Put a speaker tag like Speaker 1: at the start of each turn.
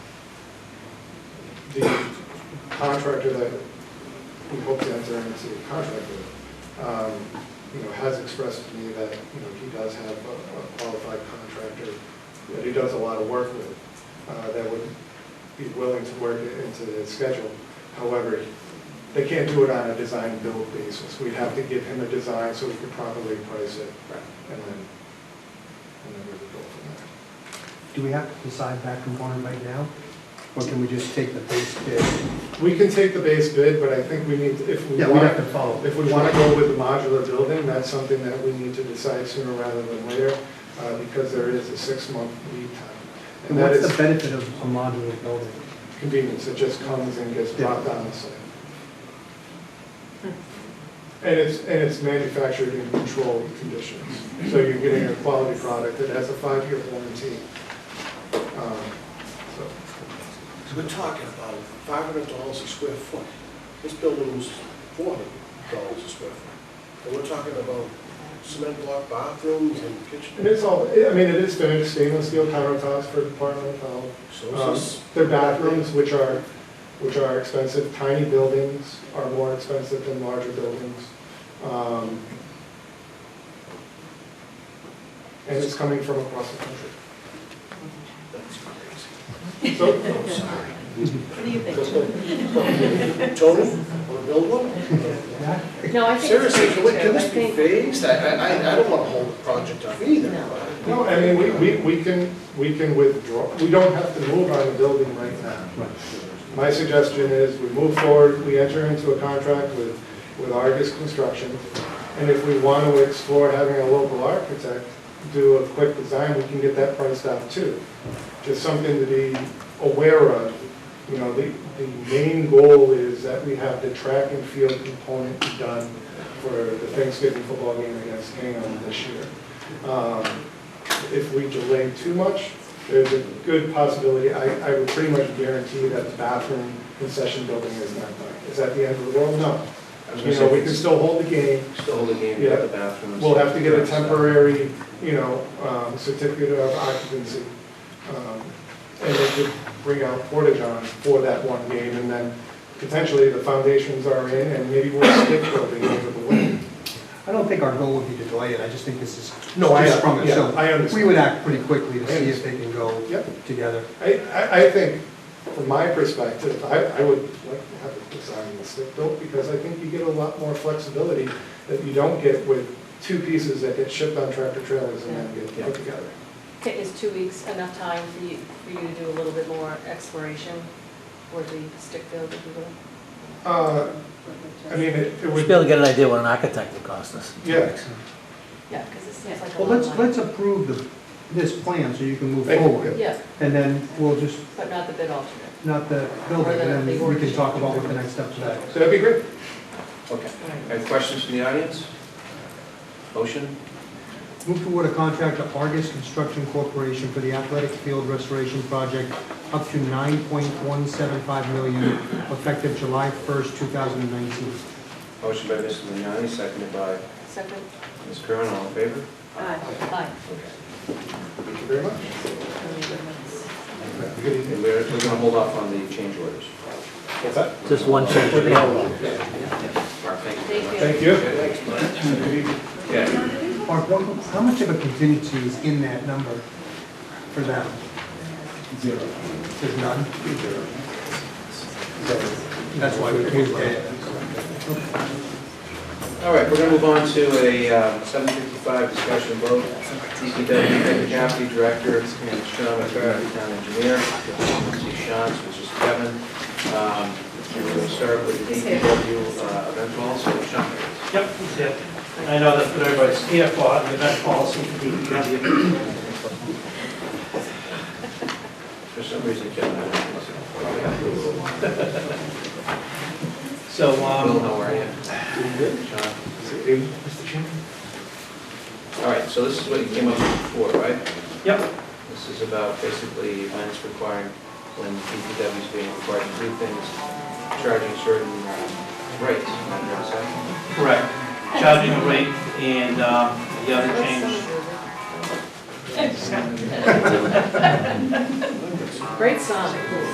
Speaker 1: the contractor that we hope to enter into a contract with, um, you know, has expressed to me that, you know, he does have a a qualified contractor that he does a lot of work with, uh, that would be willing to work it into his schedule. However, they can't do it on a design build basis. We'd have to give him a design so we could properly price it. And then, and then we would go from there.
Speaker 2: Do we have to decide that component right now? Or can we just take the base bid?
Speaker 1: We can take the base bid, but I think we need, if we
Speaker 2: Yeah, we have
Speaker 1: want,
Speaker 2: to follow.
Speaker 1: if we want to go with the modular building, that's something that we need to decide sooner rather than later, uh, because there is a six-month lead time.
Speaker 2: And
Speaker 1: And that
Speaker 2: what's the
Speaker 1: is
Speaker 2: benefit of a modular building?
Speaker 1: convenience, it just comes and gets
Speaker 2: Yeah.
Speaker 1: dropped on the site. And it's, and it's manufactured in controlled conditions, so you're getting a quality product that has a five-year warranty. Um, So
Speaker 3: So we're talking about five hundred dollars a square foot. This building was four hundred dollars a square foot. And we're talking about cement block bathrooms and
Speaker 1: And
Speaker 3: kitchen.
Speaker 1: it's all, I mean, it is finished stainless steel countertops for Department of Health.
Speaker 3: So
Speaker 1: Um,
Speaker 3: is this,
Speaker 1: Their bathrooms, which are, which are expensive, tiny buildings are more expensive than larger buildings. Um, And it's coming from across the country.
Speaker 3: that's crazy.
Speaker 1: So,
Speaker 3: I'm sorry.
Speaker 4: What do you think?
Speaker 3: Tony, wanna build one?
Speaker 2: Yeah?
Speaker 4: No, I think it's
Speaker 3: Seriously,
Speaker 4: great,
Speaker 3: can we-
Speaker 4: too.
Speaker 3: can
Speaker 4: I
Speaker 3: this be
Speaker 4: think-
Speaker 3: phased? I, I- I, I don't wanna hold the project up either.
Speaker 4: No.
Speaker 3: but-
Speaker 1: no, I mean, we, we, we can, we can withdraw, we don't have to move on the building right now. My suggestion is we move forward, we enter into a contract with, with Argus Construction. And if we want to explore having a local architect do a quick design, we can get that priced out too. Just something to be aware of. You know, the, the main goal is that we have the track and field component done for the Thanksgiving football game against Hingham this year. Um, if we delay too much, there's a good possibility, I, I would pretty much guarantee that the bathroom concession building is not done. Is that the end of the world? No.
Speaker 5: I was gonna
Speaker 1: You know,
Speaker 5: say-
Speaker 1: we can still hold the game,
Speaker 5: Still holding game,
Speaker 1: Yeah.
Speaker 5: get the bathrooms.
Speaker 1: we'll have to get a temporary, you know, um, certificate of occupancy. um, And they could bring out Portageon for that one game, and then potentially the foundations are in, and maybe we'll stick building over the way.
Speaker 2: I don't think our goal would be to delay it, I just think this is
Speaker 1: No, I-
Speaker 2: just sprung it.
Speaker 1: yeah,
Speaker 2: So
Speaker 1: I understand.
Speaker 2: We would act pretty quickly to
Speaker 1: I
Speaker 2: see if they can go
Speaker 1: Yep.
Speaker 2: together.
Speaker 1: I, I, I think, from my perspective, I, I would like to have a design that's stick built, because I think you get a lot more flexibility that you don't get with two pieces that get shipped on tractor trailers and then get put together.
Speaker 4: Okay, Is two weeks enough time for you, for you to do a little bit more exploration or the stick build, if you will?
Speaker 1: Uh, I mean, it it
Speaker 6: We should be
Speaker 1: would,
Speaker 6: able to get an idea what an architect would cost us.
Speaker 1: yeah,
Speaker 4: Yeah, because this seems like a
Speaker 2: Well,
Speaker 4: lot
Speaker 2: let's,
Speaker 4: of money.
Speaker 2: let's approve the, this plan so you can move
Speaker 1: Thank you.
Speaker 2: forward.
Speaker 4: Yeah,
Speaker 2: And then we'll just,
Speaker 4: but not the bid alternate.
Speaker 2: not the building, and then we can talk about what the next steps are.
Speaker 1: so that'd be great.
Speaker 5: Okay.
Speaker 4: All right.
Speaker 5: Any questions from the audience? Motion?
Speaker 2: Move toward a contract to Argus Construction Corporation for the athletic field restoration project up to 9.175 million, effective July 1st, 2019.
Speaker 5: Motion by Mr. Vignani, seconded by
Speaker 4: Second?
Speaker 5: Ms. Curran, all in favor?
Speaker 4: Aye.
Speaker 5: Okay.
Speaker 1: Thank you very much.
Speaker 5: Good evening. We're, we're going to hold off on the change orders.
Speaker 1: What's that?
Speaker 6: Just one change.
Speaker 5: Mark, thank you. very
Speaker 4: Thank
Speaker 5: much.
Speaker 4: you.
Speaker 1: Thank you.
Speaker 5: Yeah,
Speaker 2: Mark, what- how much of a contingency is in that number for them? Zero. There's none? So That's why we moved it.
Speaker 5: all right, we're going to move on to a uh, seven fifty-five discussion vote. DPW Deputy Deputy Director and Sean McCarthy, Town Engineer. See Sean's, which is Kevin. Um, and We're going to start with the DPW uh, event policy. Sean?
Speaker 7: Yep, that's it. I know that's what everybody's here for, the event policy for DPW.
Speaker 5: For some reason, Kevin, I don't know.
Speaker 7: So,
Speaker 5: I don't know
Speaker 7: um,
Speaker 5: where I am. John.
Speaker 1: Mr. Chairman?
Speaker 5: All right, so this is what you came up with before, right?
Speaker 7: yep,
Speaker 5: This is about basically events requiring, when DPW is being required to do things, charging certain um, rates. am I correct?
Speaker 7: correct. Charging a rate and um, the other change,
Speaker 4: Great song.